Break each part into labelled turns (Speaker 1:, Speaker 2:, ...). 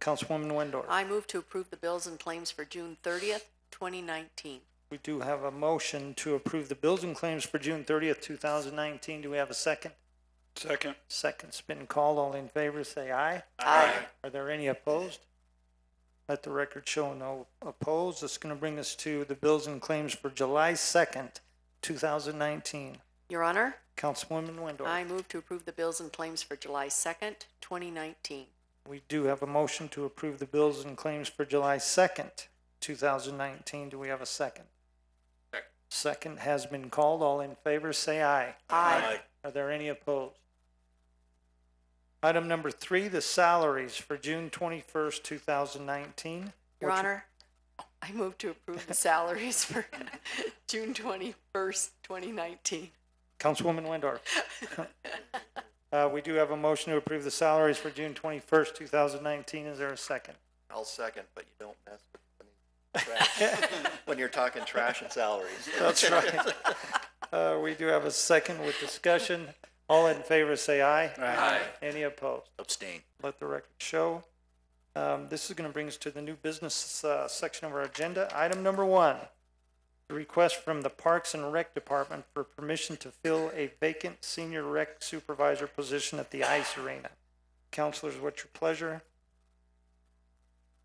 Speaker 1: Councilwoman Windor.
Speaker 2: I move to approve the bills and claims for June thirtieth, twenty nineteen.
Speaker 1: We do have a motion to approve the bills and claims for June thirtieth, two thousand nineteen. Do we have a second?
Speaker 3: Second.
Speaker 1: Second's been called. All in favor, say aye.
Speaker 2: Aye.
Speaker 1: Are there any opposed? Let the record show no opposed. That's gonna bring us to the bills and claims for July second, two thousand nineteen.
Speaker 2: Your Honor,
Speaker 1: Councilwoman Windor.
Speaker 2: I move to approve the bills and claims for July second, twenty nineteen.
Speaker 1: We do have a motion to approve the bills and claims for July second, two thousand nineteen. Do we have a second?
Speaker 3: Second.
Speaker 1: Second has been called. All in favor, say aye.
Speaker 2: Aye.
Speaker 1: Are there any opposed? Item number three, the salaries for June twenty-first, two thousand nineteen.
Speaker 2: Your Honor, I move to approve the salaries for June twenty-first, twenty nineteen.
Speaker 1: Councilwoman Windor. Uh, we do have a motion to approve the salaries for June twenty-first, two thousand nineteen. Is there a second?
Speaker 4: I'll second, but you don't mess with when you trash, when you're talking trash and salaries.
Speaker 1: That's right. Uh, we do have a second with discussion. All in favor, say aye.
Speaker 3: Aye.
Speaker 1: Any opposed?
Speaker 4: Abstain.
Speaker 1: Let the record show. Um, this is gonna bring us to the new business, uh, section of our agenda. Item number one. the Request from the Parks and Rec Department for permission to fill a vacant senior rec supervisor position at the ice arena. Counselors, what's your pleasure?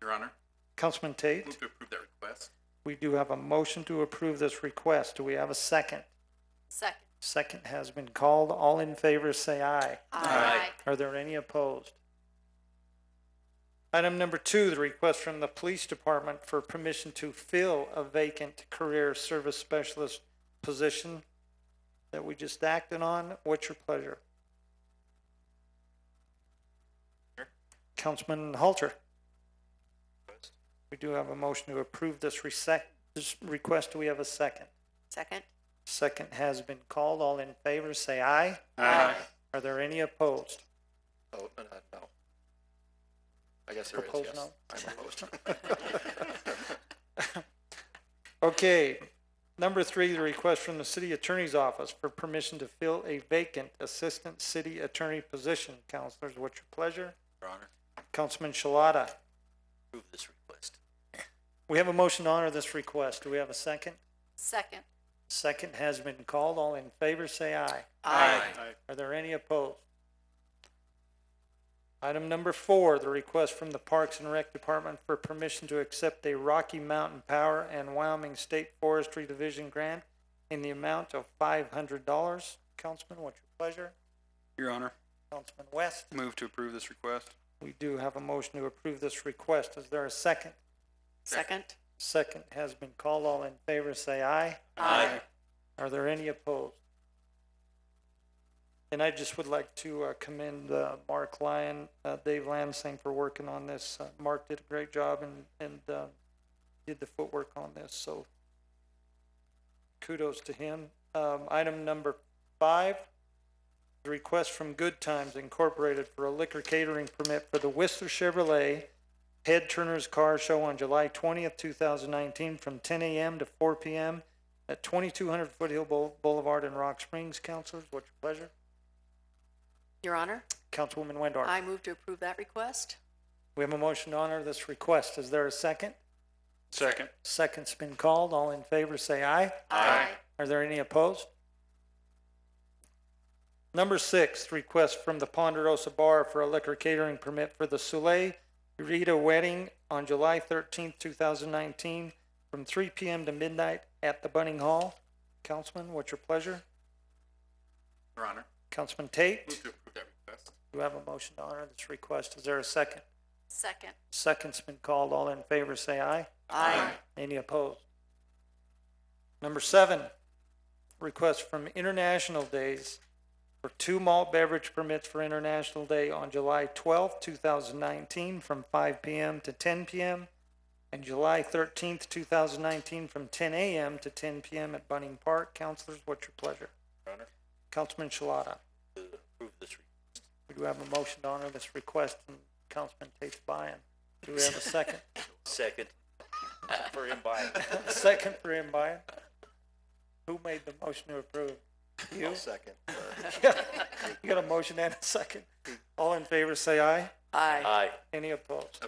Speaker 3: Your Honor,
Speaker 1: Councilman Tate,
Speaker 3: move to approve that request.
Speaker 1: we do have a motion to approve this request. Do we have a second?
Speaker 2: Second.
Speaker 1: Second has been called. All in favor, say aye.
Speaker 2: Aye.
Speaker 1: Are there any opposed? Item number two, the request from the police department for permission to fill a vacant career service specialist position that we just acted on. What's your pleasure?
Speaker 3: Sure.
Speaker 1: Councilman Halter, we do have a motion to approve this resec, this request. Do we have a second?
Speaker 2: Second.
Speaker 1: Second has been called. All in favor, say aye.
Speaker 3: Aye.
Speaker 1: Are there any opposed?
Speaker 4: Oh, no, no, no. I guess there is,
Speaker 1: Opposed,
Speaker 4: yes.
Speaker 1: no?
Speaker 4: I'm opposed.
Speaker 1: Okay, number three, the request from the city attorney's office for permission to fill a vacant assistant city attorney position. Counselors, what's your pleasure?
Speaker 3: Your Honor,
Speaker 1: Councilman Shalata,
Speaker 3: approve this request.
Speaker 1: we have a motion to honor this request. Do we have a second?
Speaker 2: Second.
Speaker 1: Second has been called. All in favor, say aye. Are there any opposed? Item number four, the request from the Parks and Rec Department for permission to accept a Rocky Mountain Power and Wyoming State Forestry Division grant in the amount of five hundred dollars. Councilman, what's your pleasure?
Speaker 3: Your Honor,
Speaker 1: Councilman West,
Speaker 3: move to approve this request.
Speaker 1: we do have a motion to approve this request. Is there a second?
Speaker 2: Second.
Speaker 1: Second has been called. All in favor, say aye.
Speaker 3: Aye.
Speaker 1: Are there any opposed? And I just would like to uh, commend uh, Mark Lyon, uh, Dave Lansing for working on this. Uh, Mark did a great job and, and uh, did the footwork on this, so kudos to him. Um, Item number five, the request from Good Times Incorporated for a liquor catering permit for the Whistler Chevrolet Head Turner's Car Show on July twentieth, two thousand nineteen, from ten AM to four PM at twenty-two hundred Foothill Boul- Boulevard in Rock Springs. Councilors, what's your pleasure?
Speaker 2: Your Honor,
Speaker 1: Councilwoman Windor.
Speaker 2: I move to approve that request.
Speaker 1: We have a motion to honor this request. Is there a second?
Speaker 3: Second.
Speaker 1: Second's been called. All in favor, say aye.
Speaker 3: Aye.
Speaker 1: Are there any opposed? Number six, request from the Ponderosa Bar for a liquor catering permit for the Soleil Rita Wedding on July thirteenth, two thousand nineteen, from three PM to midnight at the Bunning Hall. Councilman, what's your pleasure?
Speaker 3: Your Honor,
Speaker 1: Councilman Tate?
Speaker 3: move to approve that request.
Speaker 1: Do have a motion to honor this request? Is there a second?
Speaker 2: Second.
Speaker 1: Second's been called. All in favor, say aye.
Speaker 2: Aye.
Speaker 1: Any opposed? Number seven, request from International Days for two malt beverage permits for International Day on July twelfth, two thousand nineteen, from five PM to ten PM, and July thirteenth, two thousand nineteen, from ten AM to ten PM at Bunning Park. Counselors, what's your pleasure?
Speaker 3: Your Honor,
Speaker 1: Councilman Shalata?
Speaker 3: approve this request.
Speaker 1: We do have a motion to honor this request from Councilman Tate Bryan. Do we have a second?
Speaker 4: Second. For him buying.
Speaker 1: A second for him, Bryan? Who made the motion to approve? You?
Speaker 4: I'll second.
Speaker 1: You got a motion and a second. All in favor, say aye.
Speaker 2: Aye.
Speaker 4: Aye.
Speaker 1: Any opposed?